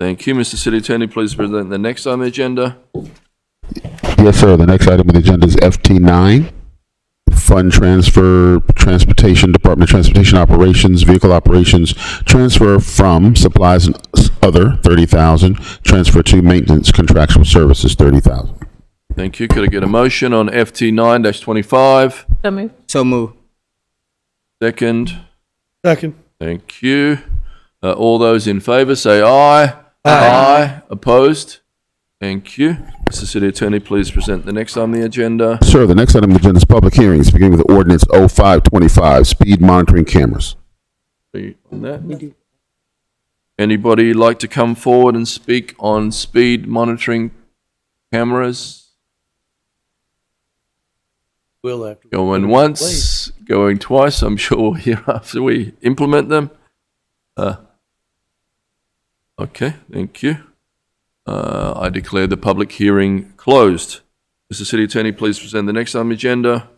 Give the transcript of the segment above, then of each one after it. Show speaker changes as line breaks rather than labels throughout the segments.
Thank you, Mr. City Attorney. Please present the next on the agenda.
Yes, sir. The next item on the agenda is FT9, Fund Transfer, Transportation, Department of Transportation Operations, Vehicle Operations, Transfer from Supplies and Other, 30,000, Transfer to Maintenance Contractual Services, 30,000.
Thank you. Could I get a motion on FT nine twenty-five?
So move.
So move.
Second.
Second.
Thank you. Uh, all those in favour say aye. aye. Opposed? Thank you. Mr. City Attorney, please present the next on the agenda.
Sir, the next item on the agenda is public hearings, beginning with ordinance 0525, speed monitoring cameras.
Are you on that? Anybody like to come forward and speak on speed monitoring cameras?
Will after.
Going once, going twice. I'm sure we'll hear after we implement them. Uh, okay, thank you. Uh, I declare the public hearing closed. Mr. City Attorney, please present the next item agenda.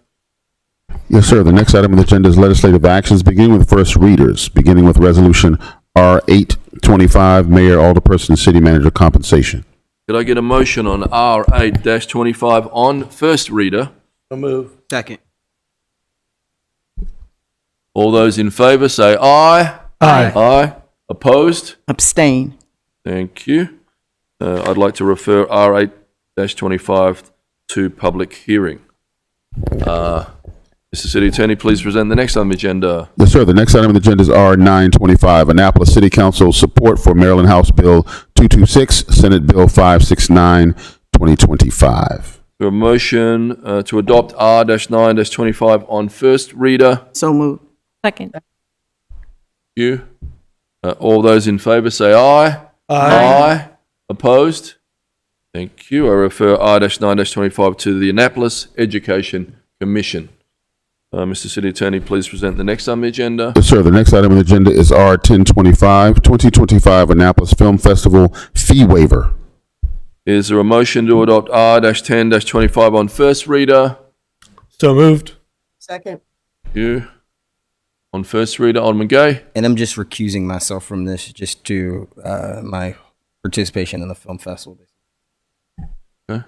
Yes, sir. The next item on the agenda is legislative actions, beginning with first readers, beginning with Resolution R825, Mayor, Alderperson, and City Manager Compensation.
Could I get a motion on R eight twenty-five on first reader?
So move.
Second.
All those in favour say aye.
Aye.
Aye. Opposed?
Abstain.
Thank you. Uh, I'd like to refer R eight twenty-five to public hearing. Uh, Mr. City Attorney, please present the next item agenda.
Yes, sir. The next item on the agenda is R nine twenty-five, Annapolis City Council support for Maryland House Bill two-two-six, Senate Bill 569, 2025.
So a motion uh, to adopt R nine twenty-five on first reader.
So move. Second.
You. Uh, all those in favour say aye. Opposed? Thank you. I refer R-9-25 to the Annapolis Education Commission. Uh, Mr. City Attorney, please present the next on the agenda.
Yes, sir. The next item on the agenda is R 1025, 2025 Annapolis Film Festival fee waiver.
Is there a motion to adopt R-10-25 on first reader?
So moved.
Second.
You. On first reader, Alderman Gay.
And I'm just recusing myself from this just to uh, my participation in the film festival.
Okay.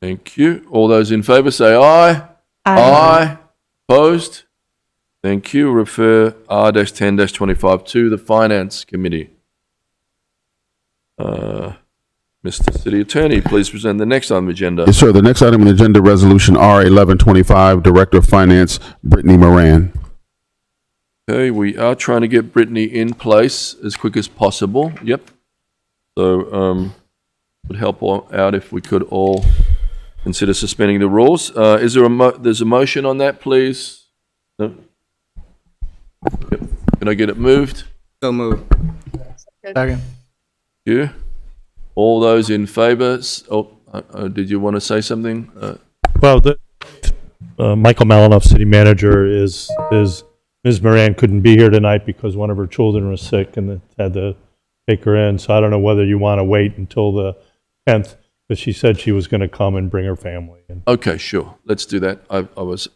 Thank you. All those in favour say aye. Oh, Aye. Opposed? Thank you. Refer R-10-25 to the Finance Committee. Uh, Mr. City Attorney, please present the next item agenda.
Yes, sir. The next item on the agenda, Resolution R eleven twenty-five, Director of Finance Brittany Moran.
Okay, we are trying to get Brittany in place as quick as possible. Yep. So, um, would help all out if we could all consider suspending the rules. Uh, is there a mo, there's a motion on that, please? No? Yep. Can I get it moved?
So move.
You? All those in favour? s- Oh, uh, uh, did you want to say something? Uh,
Well, the, uh, Michael Malinoff, city manager, is, is, Ms. Moran couldn't be here tonight because one of her children was sick and they had to take her in. So I don't know whether you want to wait until the 10th, but she said she was going to come and bring her family. And
Okay, sure. Let's do that. I, I was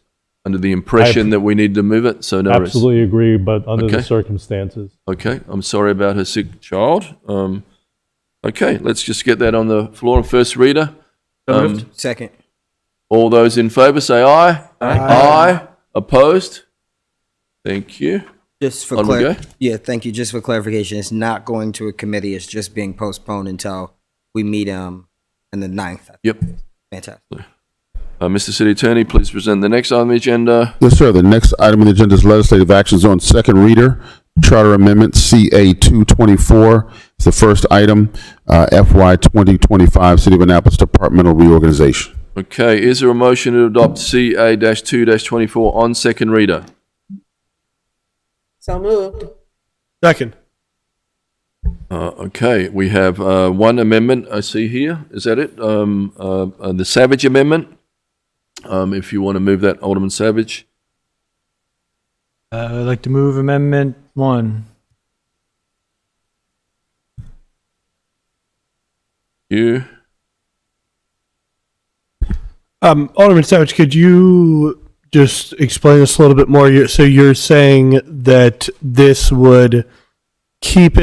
under the impression that we needed to move it, so no. worries.
Absolutely agree, but under
Okay.
the circumstances.
Okay, I'm sorry about her sick child. Um, okay, let's just get that on the floor. First reader. Um,
Second.
all those in favour say aye. Aye. Opposed? Thank you.
Just for
Alderman
clar-
Gay?
yeah, thank you. Just for clarification, it's not going to a committee. It's just being postponed until we meet um on the 9th.
Yep.
Fantastic.
Uh, Mr. City Attorney, please present the next item on the agenda.
Yes, sir. The next item on the agenda is legislative actions on second reader, Charter Amendment CA 224. It's the first item, uh, FY 2025, City of Annapolis Departmental Reorganization.
Okay, is there a motion to adopt CA 2 24 on second reader?
Second.
Uh, okay, we have uh, one amendment I see here. Is that it? Um, uh, uh, the Savage Amendment. Um, if you want to move that, Alderman Savage.
Uh, I'd like to move amendment one.
You.
Um, Alderman Savage, could you just explain this a little bit more? You're, so you're saying that this would keep it.